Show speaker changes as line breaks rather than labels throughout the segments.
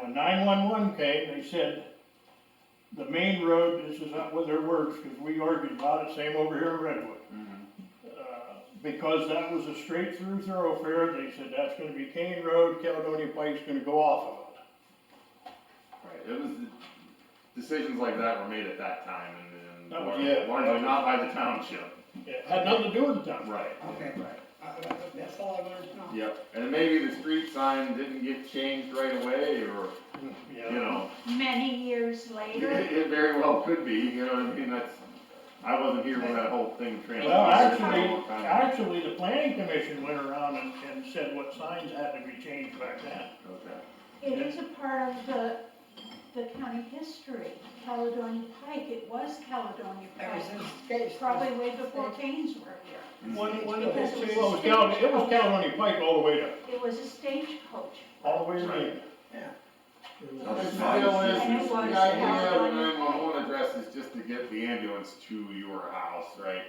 when nine-one-one came, they said, the main road, this is not what their words, because we argued about it, same over here in Redwood.
Mm-hmm.
Uh, Because that was a straight-through thoroughfare, they said, that's gonna be Kane Road, Caledonia Pike's gonna go off of it.
Right, it was, decisions like that were made at that time and,
That
and
was-
largely
Oh, yeah.
largely not by the township.
It had nothing to do with the town.
Right.
Okay.
Right.
I- that- That's all I wanted to know.
Yep, and maybe the street sign didn't get changed right away or, you know,
Many years
it,
later,
it very well could be, you know what I mean, that's, I wasn't here when that whole thing transpired.
Well,
It's been a long
actually,
time.
actually, the planning commission went around and, and said what signs had to be changed back then.
Okay.
it is a part of the, the county history. Caledonia Pike, it was Caledonia
Ever
Pike,
since Gates.
probably way before Canes were here.
One, one
of the
Because it
Well,
was
it was Cal,
a
it was
stagecoach.
Caledonia Pike all the way to,
It was a stagecoach.
all the way to
Right.
the.
Yeah.
The deal is,
Right.
is the
Anyone
idea of
else?
a nine-one-one address is just to get the ambulance to your house, right?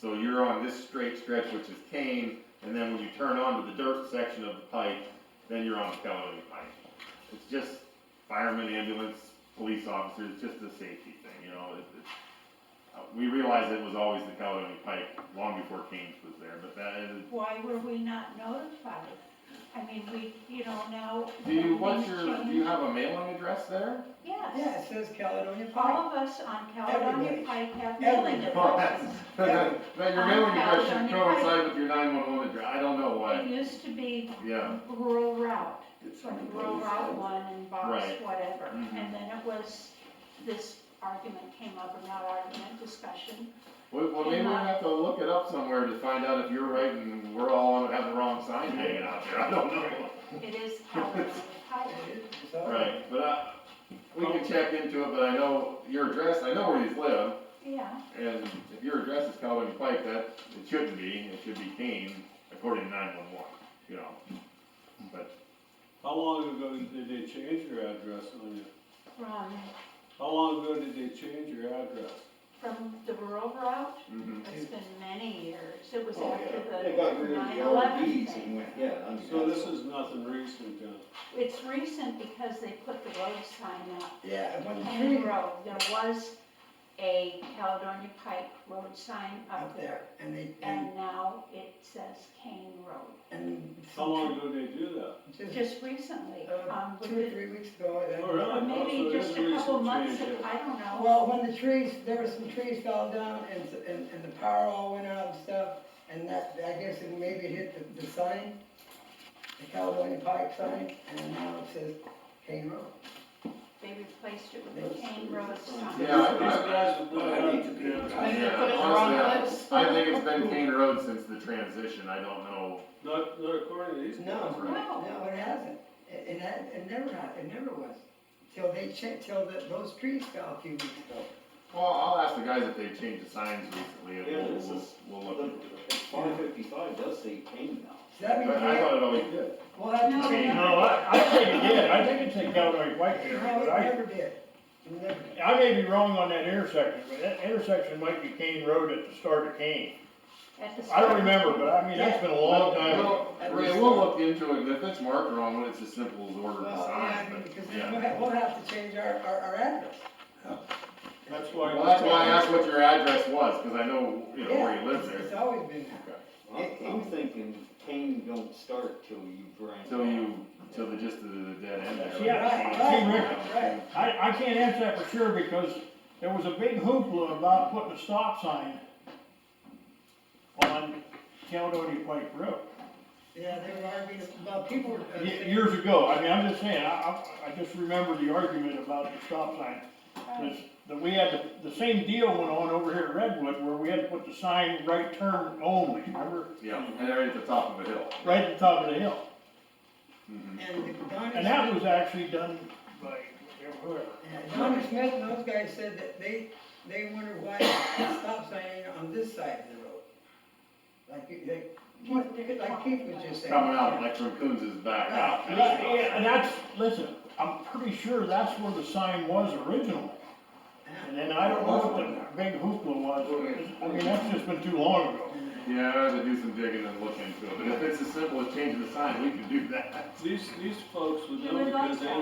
So you're on this straight stretch, which is Kane, and then when you turn onto the dirt section of the pike, then you're on the Caledonia Pike. It's just firemen, ambulance, police officers, just a safety thing, you know, it, it's, uh, we realized it was always the Caledonia Pike long before Kane's was there, but that is,
Why were we not notified? I mean, we, you know, now.
do you, what's
things
your, do
change.
you have a mailing address there?
Yeah,
Yes.
it says Caledonia Pike.
All of us on Caledonia
Everybody.
Pike have mailing
Everybody.
Well,
addresses.
that's- Now, your mailing address should coincide with your nine-one-one address, I don't know
It
why,
used to be
yeah.
rural route,
It's
like rural route one and box,
Right.
whatever.
Mhm.
And then it was, this argument came up, or not argument, discussion.
Well, well, maybe we have to look it up somewhere to find out if you're right and we're all have the wrong sign hanging out there, I don't know.
It is Caledonia Pike.
Right, but I, we can check into it, but I know your address, I know where you live,
Yeah,
and if your address is Caledonia Pike, that, it shouldn't be, it should be Kane, according to nine-one-one, you know? But,
How long ago did they change your address on you?
from,
How long ago did they change your address?
from the rural route,
mhm.
it's been many years. It was
Oh,
after
yeah,
the
they got rid of the old
9/11
deeds
thing.
and went, yeah, I mean.
So
that's-
this is nothing recent, John.
It's recent because they put the road sign up.
Yeah, when the
Kane
tree
Road, there was a Caledonia Pike road sign up
up
there.
there and they, and,
And now it says Kane Road.
and.
How long ago did they do that?
Just
Just recently,
uh,
um, with
two or
the-
three weeks ago. and-
Oh, really?
or maybe
so it is
just
a
a couple
recent
months,
change,
of- I don't know.
Well, when the trees, there were some trees fell down and, s- and, and the power all went out and stuff, and that, I guess it maybe hit the, the sign, the Caledonia Pike sign, and now it says Kane Road.
They replaced it with a Kane Road sign.
Yeah, I-
These guys have
Well, I need to be-
not had-
Maybe
Yeah,
put it in the
honestly,
wrong
I-
place.
I think it's been Kane Road since the transition, I don't know,
Not, not according to these.
No,
Right.
no, it hasn't, it, it, ha- it never had, it never was, till they checked, till the, those trees fell a few weeks ago.
well, I'll ask the guys if they've changed the signs recently,
Yeah,
and
this
we'll,
is-
we'll
Well,
look into it.
the- Farm fifty-five does say Kane now.
So that means
But I
we,
thought it always did.
we'll have
No.
to
I mean,
change.
No, I, I think it did, I think it said Caledonia Pike there,
No,
but
it
I,
never did, It never did.
I may be wrong on that intersection, but that intersection might be Kane Road at the start of Kane.
At the
I
start.
don't remember, but I mean, that's been a long time ago.
Well, Ray, we'll look into it, and if it's marked wrong, it's as simple as order the
Well, yeah, I
sign, but,
mean, because then we'll
yeah.
have, we'll have to change our, our, our address.
That's why.
Well, that's why I asked what your address was, cause I know, you know, where
Yeah,
you live
it's- It's
there,
always been that.
I'm, I'm thinking Kane don't start till you grind.
till you, till the, just to the dead end there.
Yeah,
Right, right, right.
I, I can't answer that for sure because there was a big hoopla about putting a stop sign on Caledonia Pike Road.
Yeah, they were arguing, well, people were. uh,
Ye- Years ago, I mean, I'm just saying, I, I, I just remember the argument about the stop sign. 'Cause That we had, the- the same deal went on over here at Redwood where we had to put the sign right turn only, remember?
Yeah, and right at the top of a hill.
Right at the top of the hill.
Mhm.
And Donnie.
And that was actually done by whoever.
Smith- Donnie Smith and those guys said that they, they wonder why the stop sign ain't on this side of the road. Like, you- like,
What they're
like Keith was just saying.
Coming out like from Coons' back out.
Right,
Right, yeah, and that's, listen, I'm pretty sure that's where the sign was originally. And then I don't know what the big hoopla was, I mean, that's just been too long ago.
Yeah, I'd have to do some digging and look into it, but if it's as simple as changing the sign, we can do that.
These, these folks would
He
know
would like
because they
that.